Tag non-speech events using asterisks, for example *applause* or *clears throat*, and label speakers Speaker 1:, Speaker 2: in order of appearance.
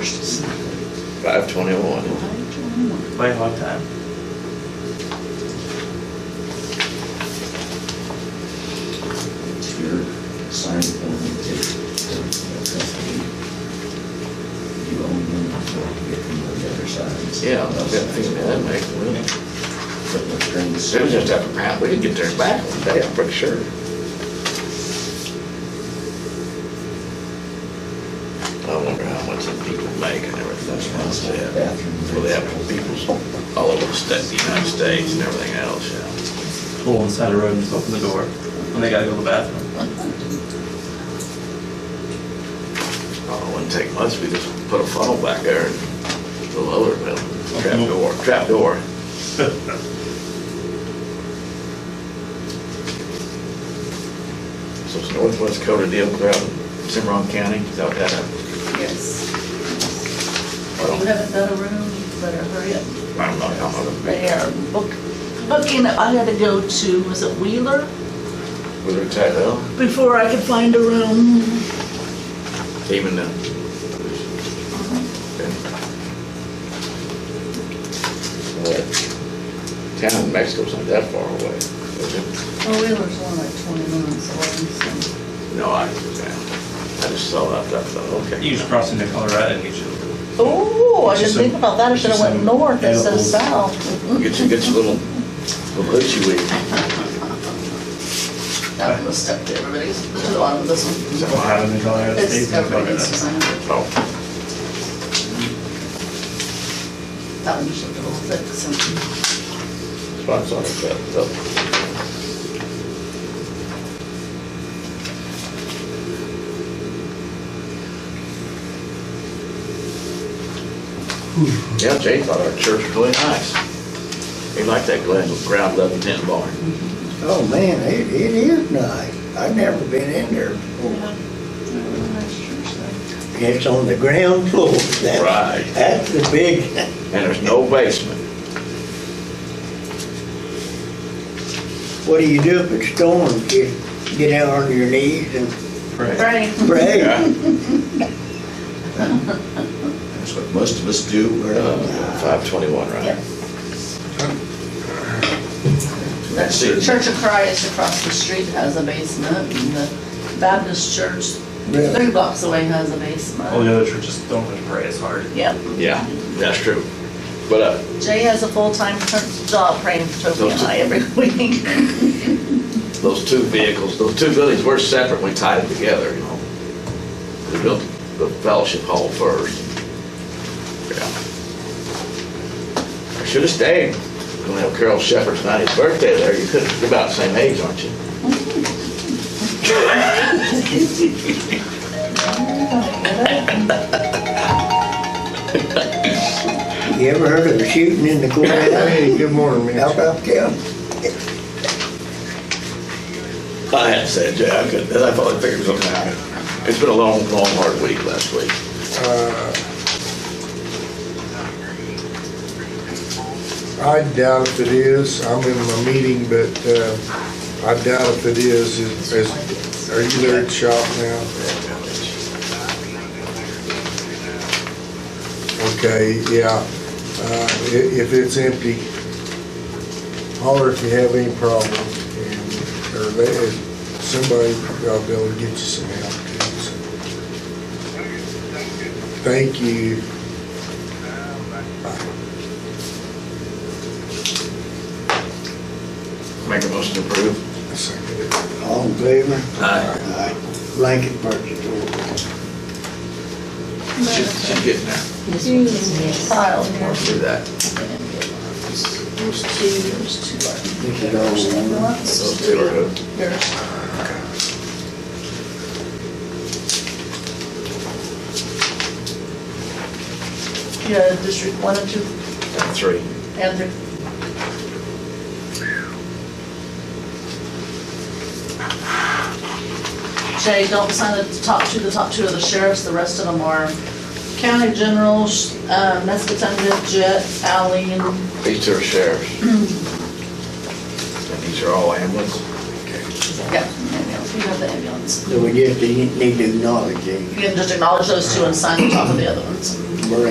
Speaker 1: first. Five twenty-one.
Speaker 2: Play hog time.
Speaker 3: Your sign only takes custody. You own them before you get them on the other side.
Speaker 1: Yeah, I've got to figure that out.
Speaker 3: But the strings-
Speaker 1: Soon as that happened, we could get there back one day, I'm pretty sure. I wonder how much the people make and everything else, yeah.
Speaker 3: Bathroom.
Speaker 1: Well, they have people all over the state, the United States and everything else, yeah.
Speaker 2: Pull inside the road and just open the door. And they gotta go to the bathroom.
Speaker 1: Oh, it wouldn't take much, we just put a funnel back there and a little other, well, trap door, trap door. So it's Northwest Dakota deal throughout Cimarron County, is that what that happened?
Speaker 4: Yes.
Speaker 1: I
Speaker 4: If you
Speaker 1: don't-
Speaker 4: haven't got a room, you better hurry up.
Speaker 1: I don't know how much.
Speaker 4: They are book, booking, I had to go to, was it Wheeler?
Speaker 1: Was it Tyrell?
Speaker 4: Before I could find a room.
Speaker 1: Even then? What? Town in Mexico's not that far away. is it?
Speaker 4: Well, Oh, Wheeler's only like twenty minutes away, so.
Speaker 1: No, I, yeah, I just saw that, that, that, okay.
Speaker 2: You just cross into Colorado and get you.
Speaker 4: Oh, I didn't think about that, I
Speaker 2: It's
Speaker 4: should have
Speaker 2: just
Speaker 4: went
Speaker 2: some
Speaker 4: north instead of
Speaker 2: edibles.
Speaker 4: south.
Speaker 1: Get you, get your little, little hoochie weed.
Speaker 4: That was stuck to everybody's, to the bottom of this one.
Speaker 2: What happened in Colorado
Speaker 4: It's
Speaker 2: States? in
Speaker 4: everybody's
Speaker 2: Colorado.
Speaker 4: design.
Speaker 1: Oh,
Speaker 4: That one just looked a little thick, so.
Speaker 1: that's what I saw, that, that. Yeah, Jay thought our church was really nice. He liked that ground, ground level tent barn.
Speaker 5: Oh, man, it, it is nice. I've never been in there before. It's on the ground floor. That's-
Speaker 1: Right.
Speaker 5: That's the big,
Speaker 1: And there's no basement.
Speaker 5: what do you do if it storms? You get out on your knees and
Speaker 2: Right.
Speaker 4: Right.
Speaker 5: pray?
Speaker 3: That's what most of us do. We're not-
Speaker 1: Uh, Five twenty-one,
Speaker 4: Yep.
Speaker 1: right?
Speaker 4: That's
Speaker 1: That's it.
Speaker 4: Church of Christ across the street has a basement, and the Baptist church three blocks away has a
Speaker 2: All
Speaker 4: basement.
Speaker 2: the other churches don't really pray as hard.
Speaker 4: Yep.
Speaker 1: Oh, Yeah, that's true. But, uh,
Speaker 4: Jay has a full-time per- job praying for Toby and I every *laughs* week.
Speaker 1: those two vehicles, those two buildings were separate, we tied them together, you know. We built the fellowship hall first. Yeah. I should've stayed. Gonna have Carol Shepherd's ninetieth birthday there, you could, you're about the same age, aren't you?
Speaker 5: You ever heard of a shooting in the courthouse?
Speaker 6: *laughs* Hey, good morning,
Speaker 5: How
Speaker 6: Mitch.
Speaker 5: about them?
Speaker 1: I had said, yeah, I could, I probably figured something out. It's been a long, long, hard week last week.
Speaker 6: I doubt if it is, I'm in my meeting, but uh, I doubt if it is. Is- is- Are you there at shop now? Okay, yeah, Uh, i- if it's empty, holler if you have any problem, and- or they- if somebody, I'll be able to get you some help. too, so. Thank you.
Speaker 1: Make a motion to approve.
Speaker 6: I second it.
Speaker 5: All in favor?
Speaker 1: Aye.
Speaker 5: Aye. Blanket purchase order.
Speaker 1: She's, she's getting there.
Speaker 4: Filed.
Speaker 1: We'll do that.
Speaker 4: There's two, there's two.
Speaker 5: This is all one.
Speaker 1: Those Oh, two are good.
Speaker 4: There's- Yeah, District One and Two,
Speaker 1: Three.
Speaker 4: and the Jay, don't sign the top two, the top two are the sheriffs, the rest of them are county generals, um, Nescatunga, Jet, Alley, and
Speaker 1: These two are *clears throat* sheriffs. And these are all ambulance.
Speaker 4: Yeah. You have the ambulance.
Speaker 5: So we just need to acknowledge it.
Speaker 4: You can just acknowledge those two and sign the top of the other ones.
Speaker 5: We're